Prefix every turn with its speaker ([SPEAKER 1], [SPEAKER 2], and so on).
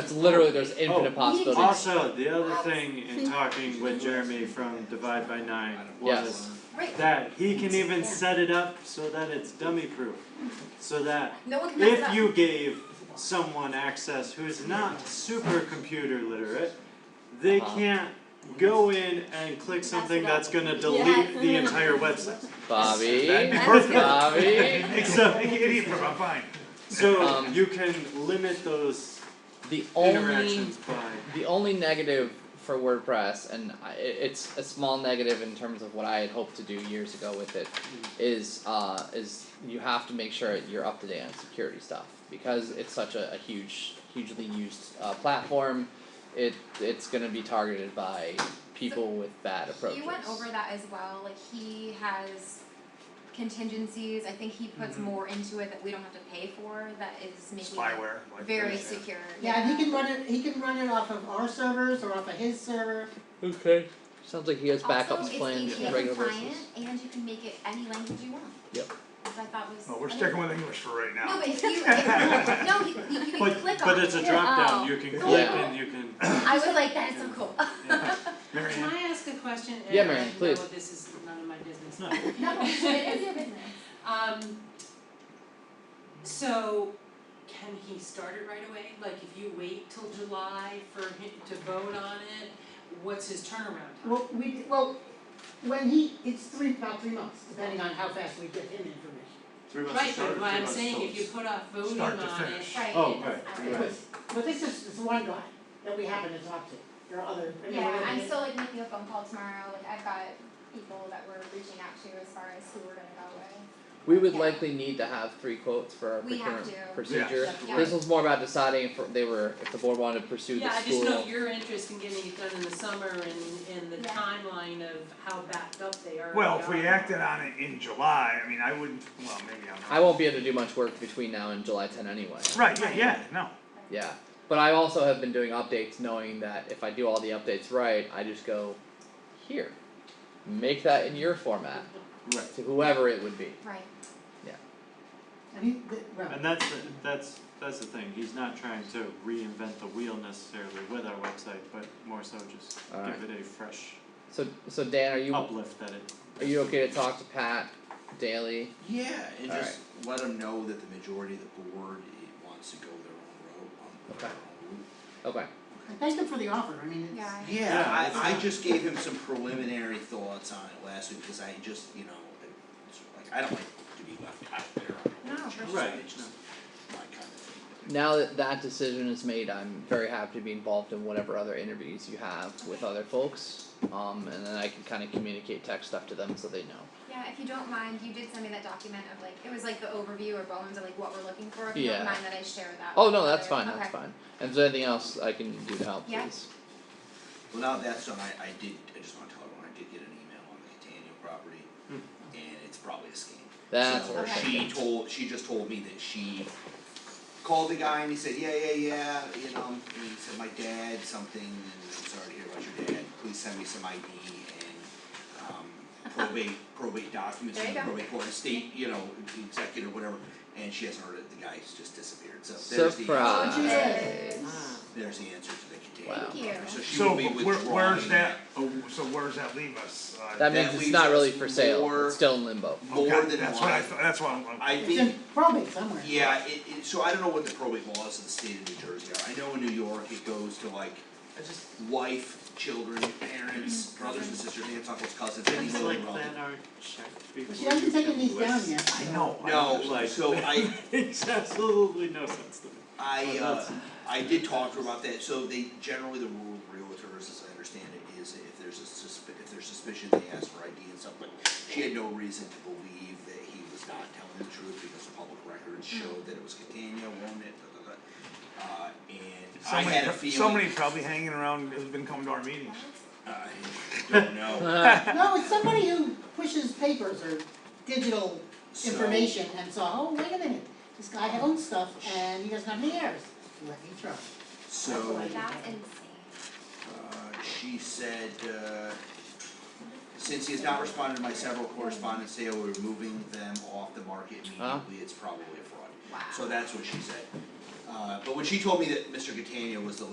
[SPEAKER 1] It's literally there's infinite
[SPEAKER 2] Oh,
[SPEAKER 1] possibilities.
[SPEAKER 2] Also, the other thing in talking with Jeremy from Divide by Nine was
[SPEAKER 1] Yes.
[SPEAKER 3] Right.
[SPEAKER 2] that he can even set it up so that it's dummy proof. So that
[SPEAKER 3] No one can mess it
[SPEAKER 2] if
[SPEAKER 3] up.
[SPEAKER 2] you gave someone access who's not super computer literate, they
[SPEAKER 1] Uh-huh.
[SPEAKER 2] can't go in and click something that's gonna delete the entire website.
[SPEAKER 1] Bobby,
[SPEAKER 2] That'd be perfect.
[SPEAKER 1] Bobby.
[SPEAKER 2] Except,
[SPEAKER 4] Make it easier, I'm fine.
[SPEAKER 2] so
[SPEAKER 1] Um,
[SPEAKER 2] you can limit those
[SPEAKER 1] The only
[SPEAKER 2] interactions by,
[SPEAKER 1] the only negative for WordPress, and I, it- it's a small negative in terms of what I had hoped to do years ago with it, is uh, is you have to make sure you're up to date on security stuff because it's such a, a huge, hugely used uh, platform. It it's gonna be targeted by people with bad approaches.
[SPEAKER 3] He went over that as well. Like he has contingencies. I think he puts
[SPEAKER 2] Mm-hmm.
[SPEAKER 3] more into it that we don't have to pay for. That is making
[SPEAKER 4] Spyware.
[SPEAKER 3] it
[SPEAKER 4] like
[SPEAKER 3] very
[SPEAKER 4] this, yeah.
[SPEAKER 3] secure.
[SPEAKER 5] Yeah, and he can run it, he can run it off of our servers or off of his server.
[SPEAKER 1] Okay. Sounds like he has
[SPEAKER 3] also,
[SPEAKER 1] backups
[SPEAKER 3] it's
[SPEAKER 1] planned
[SPEAKER 3] APA
[SPEAKER 1] on a regular
[SPEAKER 3] compliant,
[SPEAKER 1] basis.
[SPEAKER 3] and you can make it any language you want.
[SPEAKER 1] Yep.
[SPEAKER 3] Which I thought was.
[SPEAKER 4] Oh, we're
[SPEAKER 3] I mean,
[SPEAKER 4] sticking with English for right now.
[SPEAKER 3] No, but if you, if, no, you, you, you can
[SPEAKER 2] but
[SPEAKER 3] click on
[SPEAKER 2] but
[SPEAKER 3] it. Oh.
[SPEAKER 2] it's a drop down, you can click
[SPEAKER 1] Yeah.
[SPEAKER 2] and you can.
[SPEAKER 3] I was like, that is so cool.
[SPEAKER 4] Mary
[SPEAKER 6] Can
[SPEAKER 4] Ann,
[SPEAKER 6] I ask a question?
[SPEAKER 1] Yeah,
[SPEAKER 6] And
[SPEAKER 1] Mary,
[SPEAKER 6] I know
[SPEAKER 1] please.
[SPEAKER 6] this is none of my business.
[SPEAKER 2] No.
[SPEAKER 3] no, it is your business.
[SPEAKER 6] Um, so can he start it right away? Like if you wait till July for him to vote on it, what's his turnaround time?
[SPEAKER 5] Well, we, well, when he, it's three, about three months, depending on how fast we get him information.
[SPEAKER 2] Three months
[SPEAKER 6] Right,
[SPEAKER 2] to start
[SPEAKER 6] but
[SPEAKER 2] or
[SPEAKER 6] what
[SPEAKER 2] three
[SPEAKER 6] I'm
[SPEAKER 2] months
[SPEAKER 6] saying,
[SPEAKER 2] total?
[SPEAKER 6] if you put off voting on
[SPEAKER 4] Start
[SPEAKER 6] it.
[SPEAKER 4] to finish.
[SPEAKER 3] Right.
[SPEAKER 2] Oh,
[SPEAKER 3] it's-
[SPEAKER 2] right,
[SPEAKER 3] I-
[SPEAKER 2] right.
[SPEAKER 5] It was, but this is, this one guy that we happen to talk to, there are other, I mean,
[SPEAKER 3] Yeah,
[SPEAKER 5] we're-
[SPEAKER 3] I'm still like making a phone call tomorrow, like I've got people that we're reaching out to as far as who we're gonna go with.
[SPEAKER 1] We would
[SPEAKER 3] Yeah.
[SPEAKER 1] likely need to have three quotes for our
[SPEAKER 3] We have
[SPEAKER 1] procurement
[SPEAKER 3] to.
[SPEAKER 1] procedure.
[SPEAKER 3] Yeah. Yeah.
[SPEAKER 1] This was more about deciding if they were if the board wanted to pursue
[SPEAKER 6] Yeah, I
[SPEAKER 1] the school.
[SPEAKER 6] just know your interest in getting it done in the summer and, and the
[SPEAKER 3] Yeah.
[SPEAKER 6] timeline of how backed up they are.
[SPEAKER 4] well, if we acted on it in July, I mean, I wouldn't, well, maybe I'm not.
[SPEAKER 1] I won't be able to do much work between now and July 10 anyway.
[SPEAKER 4] Right, yeah, yeah, no.
[SPEAKER 1] Yeah, but I also have been doing updates, knowing that if I do all the updates right, I just go here, make that in your format
[SPEAKER 2] Right.
[SPEAKER 1] to whoever it would be.
[SPEAKER 3] Right.
[SPEAKER 5] and he, the- well,
[SPEAKER 2] And that's the, that's that's the thing. He's not trying to reinvent the wheel necessarily with our website, but more so just
[SPEAKER 1] Alright.
[SPEAKER 2] give it a fresh
[SPEAKER 1] So so Dan, are you are
[SPEAKER 2] uplift that it.
[SPEAKER 1] you okay to talk to Pat daily?
[SPEAKER 7] Yeah, and
[SPEAKER 1] All
[SPEAKER 7] just let them know that the majority of the board eh, wants to go their own road on their
[SPEAKER 1] Okay.
[SPEAKER 7] own route.
[SPEAKER 1] Okay.
[SPEAKER 5] and thank him for the offer, I mean, it's,
[SPEAKER 3] Yeah.
[SPEAKER 7] Yeah,
[SPEAKER 2] it's
[SPEAKER 7] I, I
[SPEAKER 2] not-
[SPEAKER 7] just gave him some preliminary thoughts on it last week because I just, you know, it's like I don't like to be left out there. on the
[SPEAKER 3] No,
[SPEAKER 7] church,
[SPEAKER 2] for sure.
[SPEAKER 7] It's just my kind of thing.
[SPEAKER 1] Now that that decision is made, I'm very happy to be involved in whatever other interviews you have with other folks. Um, and then I can kind of communicate tech stuff to them so they know.
[SPEAKER 3] Yeah, if you don't mind, you did send me that document of like, it was like the overview or bones of like what we're looking for, if you
[SPEAKER 1] Yeah.
[SPEAKER 3] don't mind that I share that.
[SPEAKER 1] Oh
[SPEAKER 3] with
[SPEAKER 1] no, that's
[SPEAKER 3] others.
[SPEAKER 1] fine. That's
[SPEAKER 3] Okay.
[SPEAKER 1] fine. And if there's anything else I can do to help,
[SPEAKER 3] Yeah.
[SPEAKER 1] please.
[SPEAKER 7] Well, now that's done, I, I did, I just want to tell everyone, I did get an email on the Catania property and it's probably a scam.
[SPEAKER 1] That's
[SPEAKER 7] so
[SPEAKER 1] what
[SPEAKER 3] Okay.
[SPEAKER 7] she told she just told me that she called the guy and he said, Yeah, yeah, yeah, you know, and he said, My dad something and I'm sorry to hear about your dad, please send me some ID and um probate probate documents
[SPEAKER 3] There you
[SPEAKER 7] from the
[SPEAKER 3] go.
[SPEAKER 7] probate court, state, you know, executive or whatever, and she hasn't heard it, the guy's just disappeared, so there's the
[SPEAKER 1] surprise.
[SPEAKER 7] answer,
[SPEAKER 6] Ah,
[SPEAKER 3] Yes.
[SPEAKER 7] there's the answer to the Catania
[SPEAKER 1] Wow.
[SPEAKER 3] Thank you.
[SPEAKER 7] property. so she
[SPEAKER 4] So
[SPEAKER 7] will be
[SPEAKER 4] where,
[SPEAKER 7] withdrawing
[SPEAKER 4] where's that, oh, so where's that leave us? Uh,
[SPEAKER 1] That
[SPEAKER 7] That
[SPEAKER 1] means it's
[SPEAKER 7] leaves
[SPEAKER 1] not really
[SPEAKER 7] us
[SPEAKER 1] for sale.
[SPEAKER 7] more-
[SPEAKER 1] It's still in limbo.
[SPEAKER 7] more
[SPEAKER 4] okay,
[SPEAKER 7] than
[SPEAKER 4] That's
[SPEAKER 7] one.
[SPEAKER 4] what I, thought- that's what I'm, I'm-
[SPEAKER 7] I
[SPEAKER 5] it's
[SPEAKER 7] think
[SPEAKER 5] in probate somewhere.
[SPEAKER 7] Yeah, it, it, so I don't know what the probate laws of the state of New Jersey are, I know in New York, it goes to like wife, children, parents, brothers and sisters, aunts, uncles, cousins, any
[SPEAKER 2] Things
[SPEAKER 7] little
[SPEAKER 2] Mm-hmm. like
[SPEAKER 7] relative.
[SPEAKER 2] that are checked before
[SPEAKER 5] But she hasn't taken these down yet.
[SPEAKER 4] I know. I
[SPEAKER 7] No,
[SPEAKER 2] Like-
[SPEAKER 7] so I,
[SPEAKER 2] Makes absolutely no sense to me.
[SPEAKER 7] I,
[SPEAKER 2] Well,
[SPEAKER 7] uh,
[SPEAKER 2] that's-
[SPEAKER 7] I did talk to her about that, so they, generally the rule of realtors, as I understand it, is if there's a susp- if there's suspicion, they ask for ID and stuff, but she had no reason to believe that he was not telling the truth because the public records showed that it was Catania, owned it, da, da, da. Uh, and I
[SPEAKER 4] Somebody,
[SPEAKER 7] had a
[SPEAKER 4] pro-
[SPEAKER 7] feeling. uh,
[SPEAKER 4] somebody probably hanging around who's been coming to our meetings.
[SPEAKER 7] I don't know.
[SPEAKER 1] Uh,
[SPEAKER 5] No, it's somebody who pushes papers or digital
[SPEAKER 7] So-
[SPEAKER 5] information and saw, oh, wait a minute, this guy owns stuff and he doesn't have any heirs, let me try.
[SPEAKER 7] So,
[SPEAKER 3] That's insane.
[SPEAKER 7] uh, she said, uh, since he has not responded to my several correspondence, say we're moving them off the market
[SPEAKER 1] Huh?
[SPEAKER 7] immediately, it's probably a fraud.
[SPEAKER 3] Wow.
[SPEAKER 7] So that's what she said. Uh, but when she told me that Mr. Catania was the